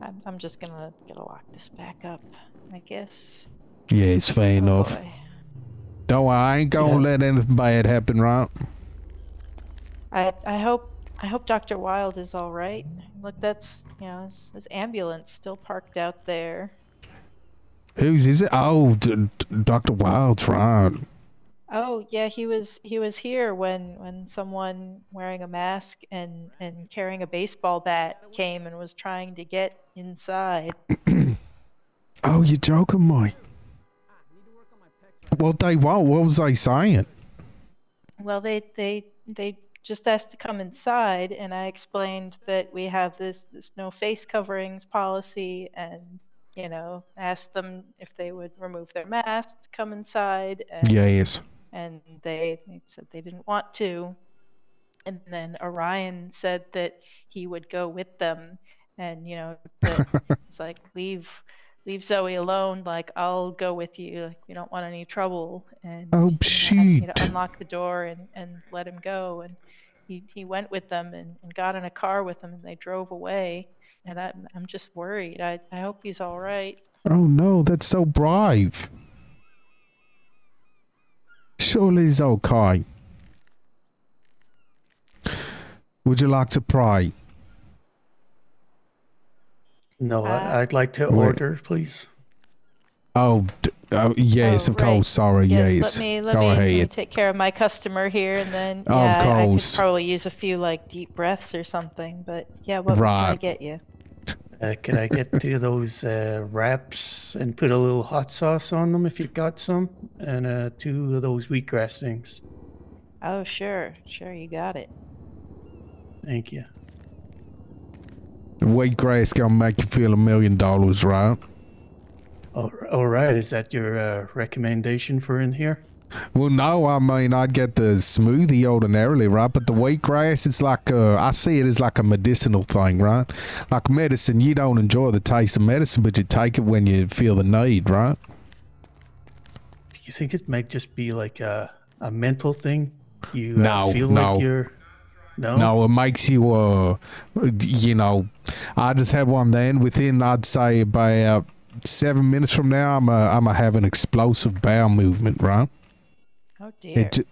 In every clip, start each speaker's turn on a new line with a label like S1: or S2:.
S1: I'm, I'm just gonna gonna lock this back up, I guess.
S2: Yeah, it's fair enough.
S1: boy.
S2: Don't worry, I ain't gonna let anything bad happen, right?
S1: I I hope I hope Dr. Wild is all right. Look, that's you know his, his ambulance still parked out there.
S2: Whose is it? Oh, D- D- Dr. Wild's right.
S1: Oh yeah, he was he was here when when someone wearing a mask and and carrying a baseball bat came and was trying to get inside.
S2: Oh, you're joking, mate. What they want? What was they saying?
S1: Well, they they they just asked to come inside, and I explained that we have this this no face coverings policy, and you know asked them if they would remove their mask to come inside, and
S2: Yes.
S1: and they, they said they didn't want to. And then Orion said that he would go with them, and you know, that it's like leave leave Zoe alone. Like I'll go with you. Like we don't want any trouble. And
S2: Oh,
S1: she asked me
S2: shoot.
S1: to unlock the door and and let him go. And he he went with them and, and got in a car with them, and they drove away. And I'm I'm just worried. I I hope he's all right.
S2: Oh no, that's so brave. Surely it's okay. Would you like to pray?
S3: No,
S1: Uh,
S3: I, I'd like to
S2: Wait.
S3: order, please.
S2: Oh, d- oh yes,
S1: Oh,
S2: of
S1: right.
S2: course. Sorry, yes.
S1: Let me let
S2: Go
S1: me, let me
S2: ahead.
S1: take care of my customer here, and then
S2: Of
S1: yeah, I- I could
S2: course.
S1: probably use a few like deep breaths or something. But yeah, what right. can I
S2: Right.
S1: get you?
S3: Uh, can I get two of those uh, wraps and put a little hot sauce on them if you've got some? And uh, two of those wheatgrass things.
S1: Oh sure, sure you got it.
S3: Thank you.
S2: Wheatgrass gonna make you feel a million dollars, right?
S3: All, all right, is that your uh, recommendation for in here?
S2: Well, no, I mean I'd get the smoothie ordinarily, right? But the wheatgrass, it's like uh, I see it as like a medicinal thing, right? Like medicine, you don't enjoy the taste of medicine, but you take it when you feel the need, right?
S3: Do you think it might just be like a, a mental thing? You
S2: No,
S3: uh, feel
S2: no.
S3: like you're. No?
S2: No, it makes you, uh, you know, I just had one then. Within, I'd say about seven minutes from now, I'm a, I'm a have an explosive bowel movement, right?
S1: Oh dear.
S2: It, ju-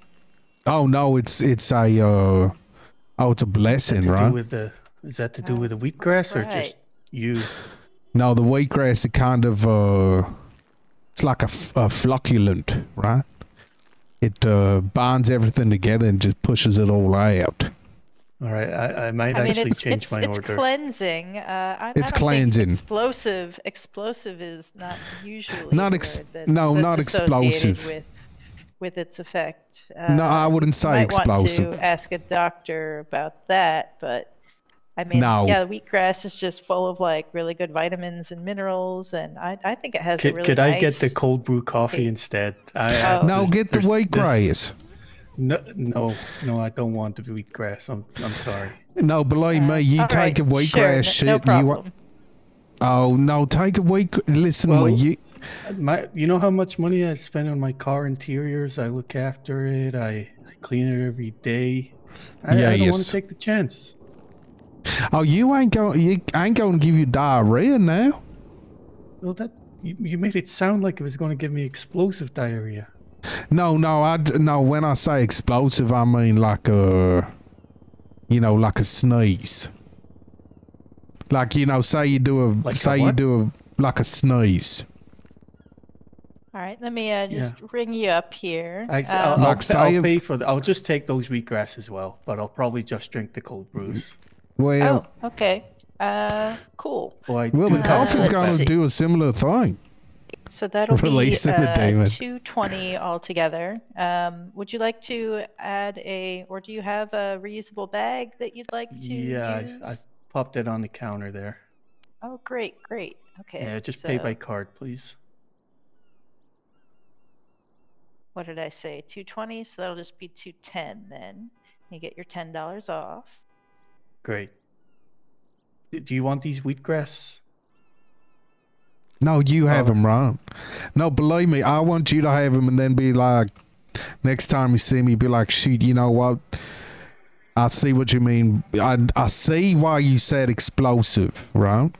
S2: oh no, it's it's a, uh, oh, it's a
S3: Is that
S2: blessing,
S3: to
S2: right?
S3: do with the, is that to do
S1: Oh,
S3: with the wheatgrass or
S1: right.
S3: just you?
S2: No, the wheatgrass it kind of uh, it's like a, f- a flocculent, right? It uh, binds everything together and just pushes it all out.
S3: All right, I, I might
S1: I mean,
S3: actually
S1: it's
S3: change
S1: it's,
S3: my
S1: it's
S3: order.
S1: cleansing. Uh, I, I
S2: It's
S1: don't think
S2: cleansing.
S1: explosive. Explosive is not usually
S2: Not
S1: a
S2: ex-
S1: word that's-
S2: no,
S1: that's
S2: not
S1: associated
S2: explosive.
S1: With with its effect.
S2: no, I
S1: Uh,
S2: wouldn't say
S1: might
S2: explosive.
S1: want to ask a doctor about that, but I mean,
S2: No.
S1: yeah, wheatgrass is just full of like really good vitamins and minerals, and I, I think it has a
S3: Could,
S1: really
S3: could I get the
S1: nice-
S3: cold brew coffee instead? I, I,
S1: Oh.
S2: No,
S3: there's-
S2: get the
S3: there's-
S2: wheatgrass.
S3: this- No, no, no, I don't want the wheatgrass. I'm, I'm sorry.
S2: No, believe me, Uh, you
S1: All right,
S2: take a wheatgrass
S1: sure, n-
S2: shit.
S1: No
S2: you
S1: problem.
S2: want, oh no, take a wheat. Listen,
S3: Well-
S2: well, you
S3: My, you know how much money I spend on my car interiors? I look after it. I, I clean it every day. I,
S2: Yeah,
S3: I don't want
S2: yes.
S3: to take the chance.
S2: oh you ain't going you ain't going to give you diarrhea now.
S3: Well, that you, you made it sound like it was going to give me explosive diarrhea.
S2: No, no, I d- no. When I say explosive, I mean like a, you know, like a sneeze. Like you know, say you do a,
S3: Like a
S2: say you
S3: what?
S2: do a, like a sneeze.
S1: All right, let me uh,
S3: Yeah.
S1: just ring you up here.
S3: I,
S1: Um,
S3: I'll,
S2: Like
S3: I'll, pa- I'll
S2: Saya-
S3: pay for the. I'll just take those wheatgrass as well, but I'll probably just drink the cold brews.
S2: Well,
S1: oh, okay. Uh, cool.
S3: Oh, I
S2: well,
S3: do
S2: the
S3: have
S2: coffee's
S3: that
S1: gone
S2: gonna
S3: back.
S1: see.
S2: do a similar thing.
S1: So that'll
S2: Releasing
S1: be
S2: the
S1: uh,
S2: demon.
S1: two twenty altogether. Um, would you like to add a, or do you have a reusable bag that you'd like to
S3: Yeah,
S1: use?
S3: I, I popped it on the counter there.
S1: Oh, great, great. Okay.
S3: Yeah, just pay by
S1: so
S3: card, please.
S1: What did I say? 220, so that'll just be 210 then. You get your $10 off.
S3: Great. D- Do you want these wheatgrass?
S2: No, you have
S3: Oh.
S2: him right. No, believe me, I want you to have him, and then be like, next time you see me, be like, shoot, you know what? I see what you mean. I I see why you said explosive, right?